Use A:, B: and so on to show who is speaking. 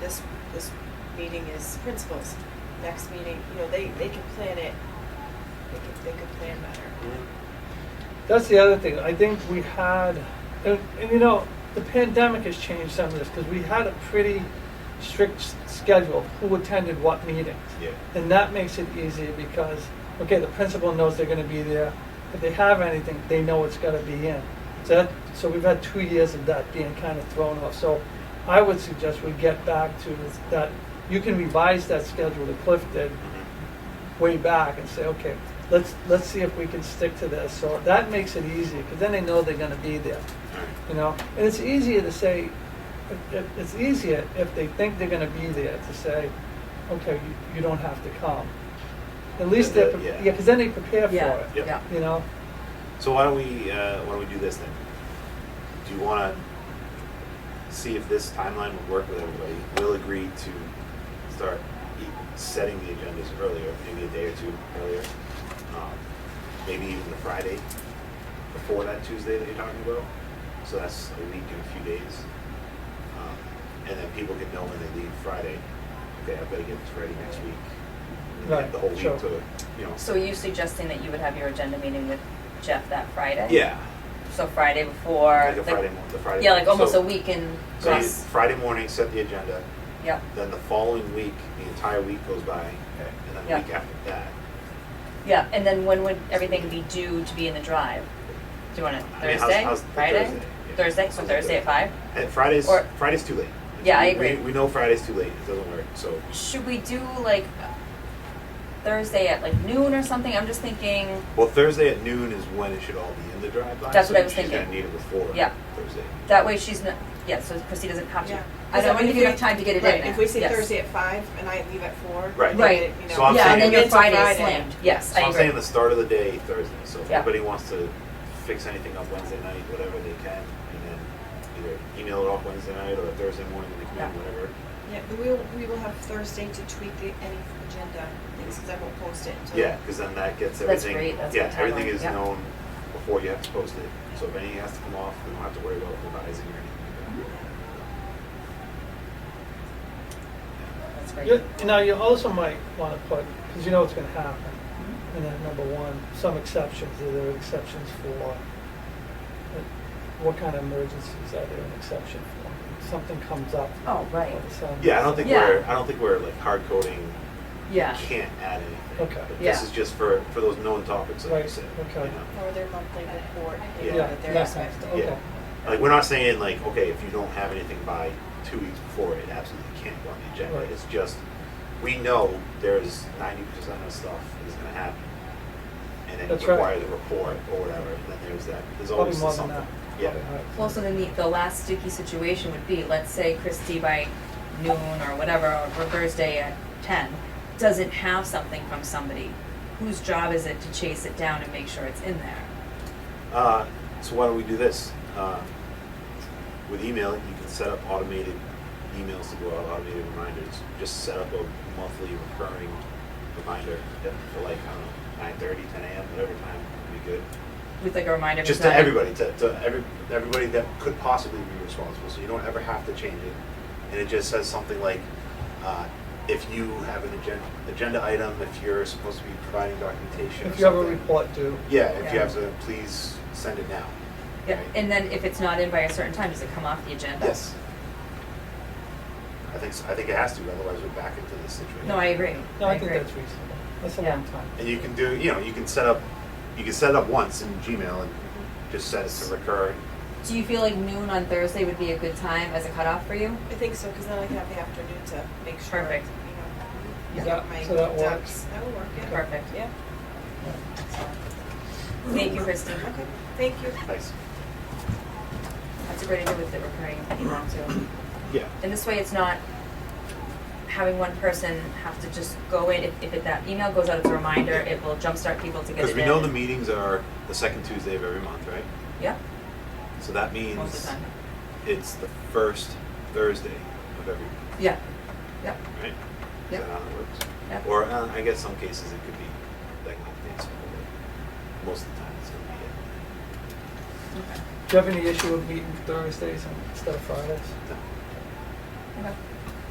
A: this, this meeting is principals, next meeting, you know, they, they can plan it, they could, they could plan better.
B: That's the other thing. I think we had, and, and you know, the pandemic has changed some of this because we had a pretty strict s- schedule who attended what meetings.
C: Yeah.
B: And that makes it easier because, okay, the principal knows they're going to be there. If they have anything, they know it's got to be in. So, that, so we've had two years of that being kind of thrown off. So I would suggest we get back to that. You can revise that schedule that Cliff did
C: Mm-hmm.
B: way back and say, okay, let's, let's see if we can stick to this. So that makes it easier, because then they know they're gonna be there, you know? And it's easier to say, it- it- it's easier if they think they're gonna be there to say, okay, you, you don't have to come. At least they're, pre-
C: Yeah.
B: yeah, because then they prepare for
D: Yeah,
B: it,
C: Yep.
D: yeah.
B: you know?
C: So why don't we, uh, why don't we do this then? Do you wanna see if this timeline would work with everybody? We'll agree to start e- setting the agendas earlier, maybe a day or two earlier. Um, Maybe even the Friday before that Tuesday that you're talking about. So that's a week and a few days. Um, And then people can know when they leave Friday, okay, I've gotta get this ready next week. And they have
B: Right,
C: The whole week
B: sure.
C: to, you know,
D: So are you suggesting that you would have your agenda meeting with Jeff that Friday?
C: yeah,
D: So Friday before.
C: like a Friday, mo- the Friday.
D: Yeah, like almost
C: so-
D: a week in.
C: So you,
D: Yes.
C: Friday morning, set the agenda.
D: Yeah,
C: Then the following week, the entire week goes by, and then the
D: Yeah.
C: week after that.
D: yeah, and then when would everything be due to be in the drive? Do you want it
C: I mean, how's-
D: Thursday,
C: how's the
D: Friday?
C: Thursday? Yeah.
D: Thursday, so
C: How's the
D: Thursday at
C: Thursday?
D: five?
C: And Fridays,
D: Or-
C: Friday's too late.
D: Yeah, I
C: We-
D: agree.
C: We, we know Friday's too late. It doesn't work. So
D: Should we do like Thursday at like noon or something? I'm just thinking,
C: well, Thursday at noon is when it should all be in the drive by.
D: That's
C: so
D: what I was
C: She's gonna
D: thinking.
C: need it before
D: Yeah.
C: Thursday.
D: that way she's not, yeah, so Chrissy doesn't have
A: Yeah.
D: to. I don't want to give you enough time to get it in
A: Right,
D: there.
A: if we say
D: Yes.
A: Thursday at five and I leave at four.
C: Right.
A: then
D: Right.
A: it, you know,
C: So I'm
D: Yeah, and
C: saying-
D: then your
A: it's a
D: Friday is slammed, yes,
C: So
D: I
C: am saying
D: agree.
C: the start of the day Thursday. So if
D: Yeah.
C: anybody wants to fix anything up Wednesday night, whatever they can, and then either email it off Wednesday night or Thursday morning when they come in,
D: Yeah.
C: whatever.
A: Yeah, but we will, we will have Thursday to tweak the, any agenda things, because I won't post it until.
C: Yeah, because then that gets
D: That's
C: everything.
D: great, that's
C: yeah,
D: good
C: everything
D: timeline,
C: is
D: yeah.
C: known before you have to post it. So if anything has to come off, we don't have to worry about revising or anything. like
D: That's great.
B: You, you know, you also might wanna put, because you know what's gonna happen. And then number one, some exceptions, are there exceptions for, uh, what kind of emergencies are there an exception for? Something comes up.
D: Oh, right.
B: So-
C: that. Yeah, I don't think
D: Yeah.
C: we're I don't think we're like hard coding.
D: Yeah.
C: Can't add anything.
B: Okay.
C: But
D: Yeah.
C: This is just for for those known topics, like you
B: Right,
C: said.
B: okay.
C: you know.
A: Or their monthly report, you know,
C: Yeah.
A: that they're
B: yeah,
A: expecting.
B: okay.
C: Like we're not saying like okay, if you don't have anything by two weeks before, it absolutely can't go on the agenda.
B: Right.
C: It's just we know there's ninety percent of stuff is going to happen, and it
B: That's right.
C: requires a report or whatever. And then there's that. There's
B: Probably
C: always
B: more than
C: something.
B: that.
C: Yeah.
B: Probably, right.
D: Well, so then the, the last sticky situation would be, let's say Christie by noon or whatever, or Thursday at ten, doesn't have something from somebody, whose job is it to chase it down and make sure it's in there?
C: Uh, so why don't we do this? Uh, with email, you can set up automated emails to go out, automated reminders. Just set up a monthly recurring reminder that for like I don't know, 9:30, 10 a.m., whatever time would be good.
D: With like a reminder.
C: Just
D: for
C: to everybody, to, to every, everybody that could possibly be responsible. So you don't ever have to change it. And it just says something like, uh, if you have an agenda, agenda item, if you're supposed to be providing documentation. or
B: If you have a
C: something.
B: report due,
C: Yeah, if you
D: Yeah.
C: have to, please send it now.
D: Yeah, and then if it's not in by a certain time, does it come off the agenda?
C: Yes. I think, so- I think it has to, otherwise we're back into this situation.
D: No, I agree.
B: no, I think
D: agree.
B: that's reasonable. That's a
D: Yeah.
B: long time.
C: And you can do, you know, you can set up, you can set it up once in Gmail and just set it to recur.
D: Do you feel like noon on Thursday would be a good time as a cutoff for you?
A: I think so, because then I can have the afternoon to make sure.
D: Perfect.
A: You know,
B: Is
A: get
B: that-
A: my
B: so that works?
A: ducks. That will work, yeah.
D: Perfect.
A: Yeah,
D: Thank you, Christie.
A: okay, thank you.
C: Nice.
D: That's a great idea with the recurring email too.
C: Yeah.
D: And this way, it's not having one person have to just go in. If, if it, that email goes out as a reminder, it will jumpstart people to get it in.
C: Because we know the meetings are the second Tuesday of every month, right?
D: Yeah,
C: So that
D: most of the
C: means
D: time.
C: it's the first Thursday of every month,
D: Yeah, yeah,
C: right? Is
D: Yep.
C: that how it works?
D: yeah.
C: Or uh, I guess some cases it could be like not the days, but most of the time it's going to be it.
D: Okay.
B: Do you have any issue with meeting Thursdays instead of Fridays?
C: No.
D: Okay.